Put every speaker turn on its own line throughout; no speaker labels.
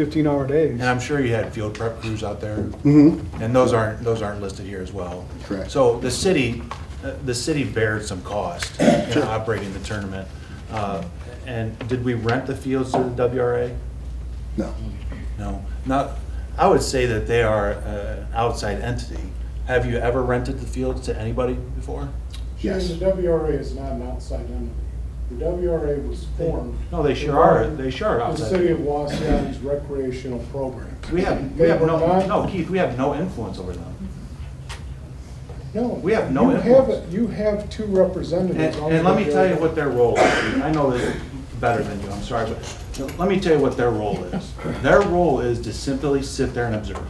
15-hour days.
And I'm sure you had field prep crews out there,
Mm-hmm.
and those aren't, those aren't listed here as well.
Correct.
So the city, uh, the city bared some cost in operating the tournament. Uh, And did we rent the fields to the WRA?
No.
No, not, I would say that they are uh, an outside entity. Have you ever rented the fields to anybody before?
Yes.
Shane, the WRA is not an outside entity. The WRA was formed.
No, they sure
to
are.
run
They sure are outside.
The city of Waseon's recreational program.
We have, we
They
have
were
no,
not-
no, Keith, we have no influence over them.
No.
we have no
You have,
influence.
a- you have two
And,
representatives on the.
and let me tell you
WRA.
what their role is. I know this better than you, I'm sorry, but let me tell you what their role is. Their role is to simply sit there and observe.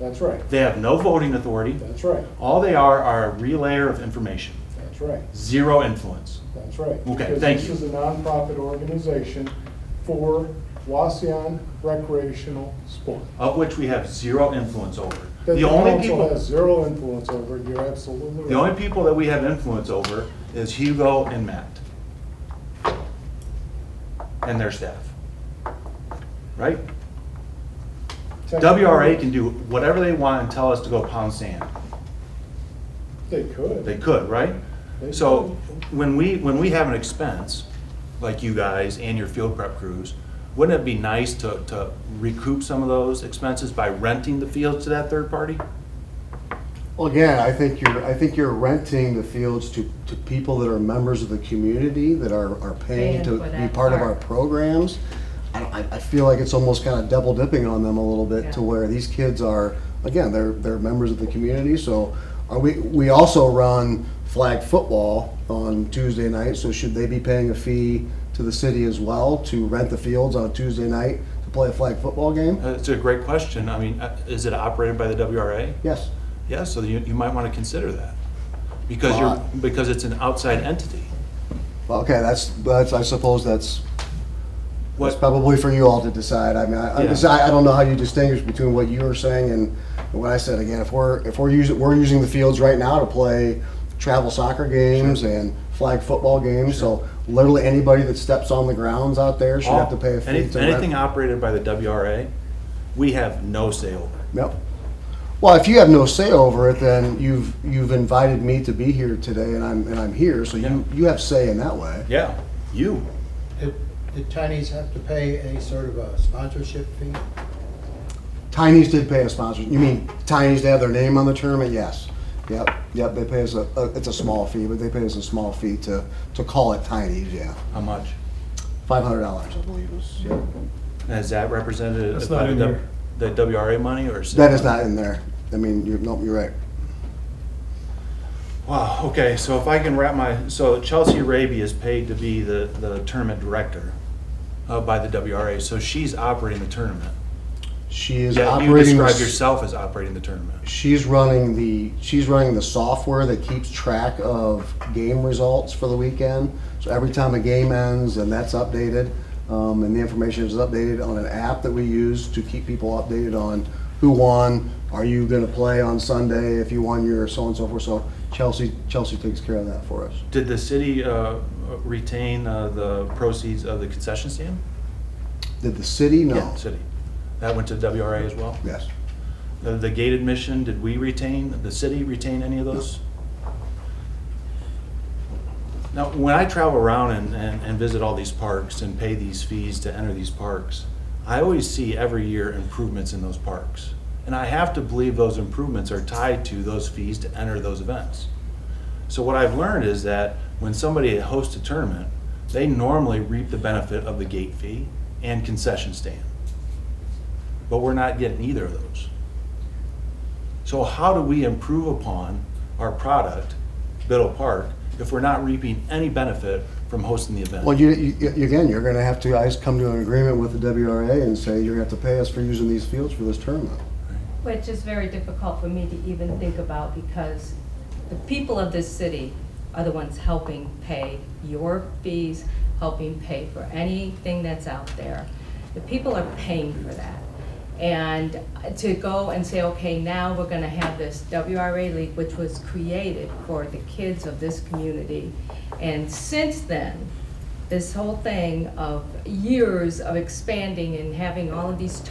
That's right,
They have no voting authority.
that's right,
All they are are a relayer of information,
that's right,
zero influence.
that's right.
Okay,
Because
thank you.
This is a nonprofit organization for Waseon recreational sport.
of which we have zero influence over.
That
The only
council has
people,
zero influence over, it. you're absolutely right.
the only people that we have influence over is Hugo and Matt. And their staff. Right?
Technically,
WRA can do whatever they want and tell us to go pound sand.
They could.
They could, right?
They
So when we, when we have an expense, like you guys and your field prep crews, wouldn't it be nice to, to recoup some of those expenses by renting the fields to that third party?
Well, again, I think you're, I think you're renting the fields to, to people that are members of the community, that are, are paying
Paying
to
for
be
that
part of our
part.
programs. I, don't- I, I feel like it's almost kind of double dipping on them a little bit to
Yeah.
where these kids are, again, they're, they're members of the community, so are we, we also run flag football on Tuesday night, so should they be paying a fee to the city as well to rent the fields on a Tuesday night to play a flag football game?
Uh, It's a great question. I mean, uh, is it operated by the WRA?
Yes.
Yeah, so you, you might want to consider that. Because you're,
Well,
because it's an outside entity.
Well, okay, that's, that's, I suppose that's It's
What,
probably for you all to decide. I mean, I, I
Yeah.
deci- I don't know how you distinguish between what you were saying and what I said. Again, if we're, if we're using, we're using the fields right now to play travel soccer games and flag football games, so literally anybody that steps on the grounds out there should have to pay a
Oh,
fee.
any-
to rent-
anything operated by the WRA, we have no say over.
Yep. Well, if you have no say over it, then you've, you've invited me to be here today and I'm, and I'm here, so you,
Yeah.
you have say in that way.
Yeah, you.
Do do Chinese have to pay any sort of a sponsorship fee?
Tiny's did pay a sponsor. You mean Tiny's to have their name on the tournament? Yes. Yep. Yep. They pay us a, a it's a small fee, but they pay us a small fee to to call it Tiny's. Yeah,
How much?
five hundred dollars, I believe. Is, yeah.
And Is that represented?
That's
by
not in
the-
here.
The WRA money or?
That is not in there. I mean, you're nope. You're right.
Wow, okay, so if I can wrap my, so Chelsea Raby is paid to be the, the tournament director uh, by the WRA, so she's operating the tournament.
She is
Yeah, you
operating. the
describe
s-
yourself as operating the tournament.
She's running the she's running the software that keeps track of game results for the weekend. So every time a game ends, and that's updated, um, and the information is updated on an app that we use to keep people updated on who won. Are you going to play on Sunday? If you won, your so and so forth. So Chelsea Chelsea takes care of that for us.
Did the city uh, retain uh, the proceeds of the concession stand?
Did the city? No.
Yeah, City. That went to WRA as well?
Yes.
The the gate admission, did we retain, the city retain any of those? Now, when I travel around and, and and visit all these parks and pay these fees to enter these parks, I always see every year improvements in those parks. And I have to believe those improvements are tied to those fees to enter those events. So what I've learned is that when somebody hosts a tournament, they normally reap the benefit of the gate fee and concession stand. But we're not getting either of those. So how do we improve upon our product, Biddle Park, if we're not reaping any benefit from hosting the event?
Well, you, you, you- again, you're going to have to I just come to an agreement with the WRA and say you're going to have to pay us for using these fields for this tournament.
Which is very difficult for me to even think about because the people of this city are the ones helping pay your fees, helping pay for anything that's out there. The people are paying for that. And to go and say, okay, now we're gonna have this WRA League, which was created for the kids of this community. And since then, this whole thing of years of expanding and having all of these